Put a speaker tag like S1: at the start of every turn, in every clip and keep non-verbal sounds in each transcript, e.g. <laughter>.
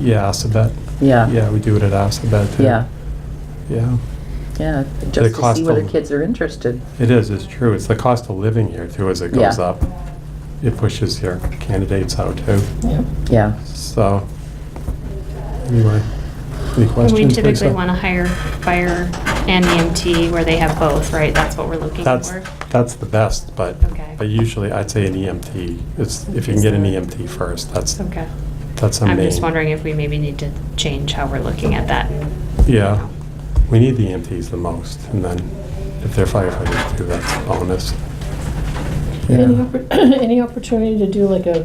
S1: Yeah, Assabet.
S2: Yeah,
S1: Yeah, we do it at Assabet too.
S2: yeah,
S1: Yeah,
S2: yeah,
S1: The
S2: just to
S1: cost
S2: see whether
S1: of-
S2: kids are interested.
S1: it is, it's true. It's the cost of living here too, as it goes
S2: Yeah.
S1: up. It pushes your candidates out too.
S2: Yeah,
S1: So, anyway, any questions?
S3: We typically
S1: Lisa?
S3: want to hire fire and EMT where they have both, right? That's what we're looking
S1: That's,
S3: for.
S1: that's the best, but,
S3: Okay.
S1: but usually I'd say an EMT. It's, if you can get an EMT first, that's,
S3: Okay.
S1: that's a main.
S3: I'm just wondering if we maybe need to change how we're looking at that.
S1: Yeah, we need the EMTs the most, and then if they're firefighters too, that's a bonus.
S4: Any,
S1: Yeah.
S4: oppor- <coughs> any opportunity to do like a,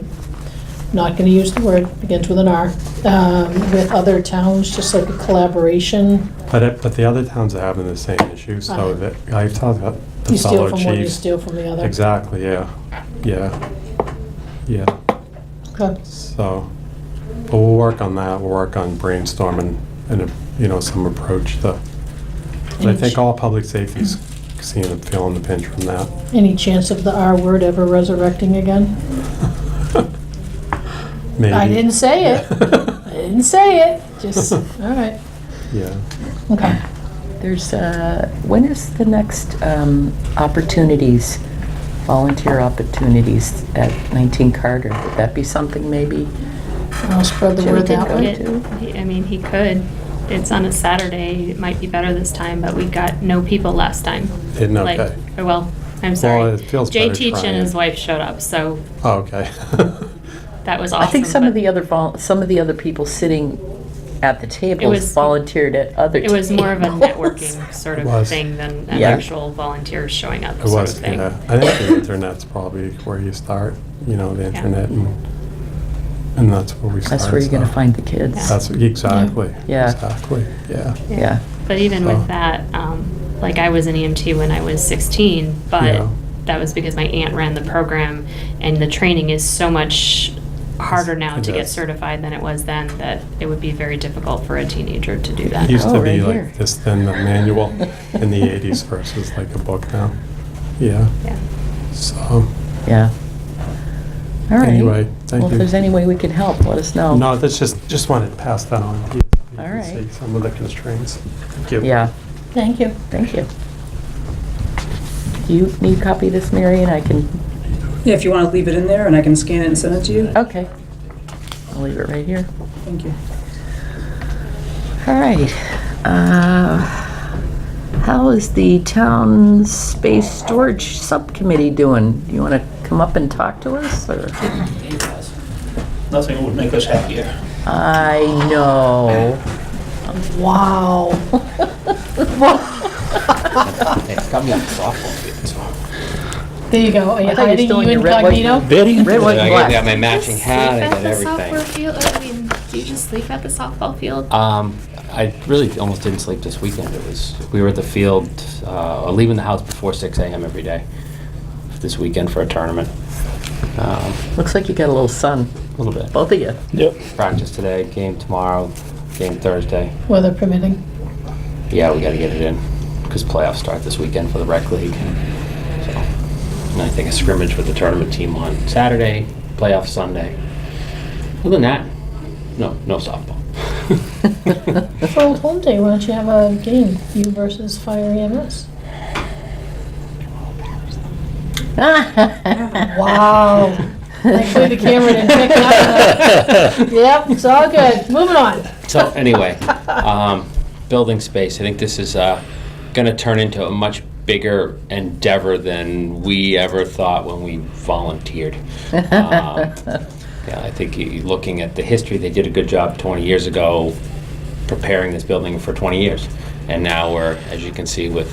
S4: not gonna use the word, begins with an R, um, with other towns, just like a collaboration?
S1: But, it- but the other towns are having the same issue, so
S4: Uh-huh.
S1: that, I've talked about the
S4: You steal
S1: fellow
S4: from one, you
S1: chiefs.
S4: steal from the other.
S1: Exactly, yeah, yeah, yeah,
S4: Okay.
S1: so, but we'll work on that, we'll work on brainstorming and, you know, some approach to, but I
S4: Any
S1: think
S4: ch-
S1: all public safety's seeing and feeling the pinch from that. <laughs>
S4: Any chance of the R word ever resurrecting again?
S1: Maybe.
S4: I didn't
S1: <laughs>
S4: say it. I didn't say it, just, all right,
S1: Yeah,
S4: okay.
S2: there's, uh, when is the next um, opportunities, volunteer opportunities at 19 Carter? Would that be something maybe?
S4: I'll spread the
S2: Jim
S4: word
S2: did
S4: that
S2: go
S4: way.
S2: to-
S3: It- he- I mean, he could. It's on a Saturday. It might be better this time, but we got no people last time.
S1: Didn't,
S3: Like-
S1: okay.
S3: or Well, I'm sorry.
S1: it feels
S3: Jay
S1: better
S3: Teach
S1: trying.
S3: and his wife showed up, so
S1: Oh, okay. <laughs>
S3: that was
S2: I
S3: awesome.
S2: think some
S3: but
S2: of the other, vol- some of the other people sitting at the tables
S3: was-
S2: volunteered at other
S3: It
S2: tables.
S3: was more of a
S2: <laughs>
S3: networking sort
S1: It was.
S3: of thing than an
S2: Yeah.
S3: actual volunteer showing up
S1: It
S3: sort of
S1: was,
S3: thing.
S1: yeah. I think the internet's probably where you start, you know, the
S3: Yeah.
S1: internet and, and that's where we start.
S2: That's where you're going to
S1: so.
S2: find the kids.
S1: That's, exactly.
S2: Yeah.
S1: Exactly, yeah.
S2: Yeah.
S3: But even
S1: So-
S3: with that, um, like I was an EMT when I was 16, but
S1: Yeah.
S3: that was because my aunt ran the program, and the training is so much harder now
S1: It
S3: to get
S1: is.
S3: certified than it was then that it would be very difficult for a teenager to do that.
S1: It used
S2: Oh,
S1: to be
S2: right here.
S1: like this thin, the manual in the eighties versus like a book now. Yeah,
S3: Yeah.
S1: so,
S2: Yeah. All right.
S1: Anyway, thank
S2: Well,
S1: you.
S2: if there's any way we can help, let us know.
S1: no, that's just, just wanted to pass that on. to you so you
S2: Oh. All
S1: can
S2: right.
S1: see Some of the constraints. Thank you.
S2: Yeah.
S4: Thank you.
S2: Thank you. Do you need a copy of this, Mary, and I can,
S5: Yeah, if you want to leave it in there, and I can scan it and send it to you.
S2: okay. I'll leave it right here.
S5: Thank you.
S2: All right. Uh, How is the town space storage subcommittee doing? Do you want to come up and talk to us, or?
S6: Nothing would make us happier.
S2: I know.
S4: Wow. There you go, are you
S2: <laughs> I thought you were
S4: hiding
S2: still in
S4: you
S2: your red, white-
S4: incognito?
S6: Very.
S2: Red, white, and
S7: I got
S2: black.
S7: my matching hat, I got everything.
S3: field? I mean, do you just sleep at the softball field?
S7: Um, I really almost didn't sleep this weekend. It was, we were at the field, uh, leaving the house before six AM every day this weekend for a tournament. Um,
S2: Looks like you got a little sun,
S7: A little bit.
S2: both of you.
S6: Yep.
S7: Practice today, game tomorrow, game Thursday.
S4: Weather permitting.
S7: Yeah, we gotta get it in, because playoffs start this weekend for the rec league. So, And I think a scrimmage with the tournament team on Saturday, playoff Sunday. Other than that, no, no softball. <laughs>
S4: For Old Home Day, why don't you have a game, you versus Fire E EMS?
S2: <laughs>
S4: Wow. Thankfully, the camera didn't pick it up. Yep, it's all good. Moving on.
S7: So anyway, um, building space, I think this is, uh, gonna turn into a much bigger endeavor than we ever thought when we volunteered. Um, Yeah, I think you- you- looking at the history, they did a good job 20 years ago preparing this building for 20 years. And now we're, as you can see with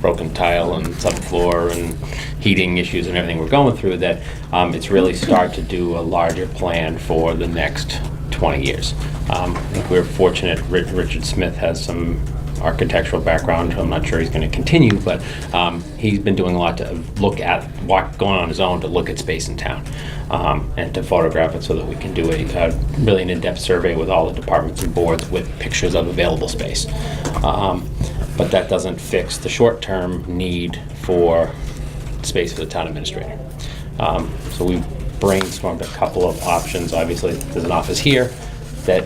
S7: broken tile and subfloor and heating issues and everything we're going through, that um, it's really start to do a larger plan for the next 20 years. Um, I think we're fortunate, Ri- Richard Smith has some architectural background, I'm not sure he's going to continue, but um, he's been doing a lot to look at, walk, going on his own to look at space in town um, and to photograph it so that we can do a, a really an in-depth survey with all the departments and boards with pictures of available space. Um, but that doesn't fix the short-term need for space for the town administrator. Um, so we brainstormed a couple of options. Obviously, there's an office here that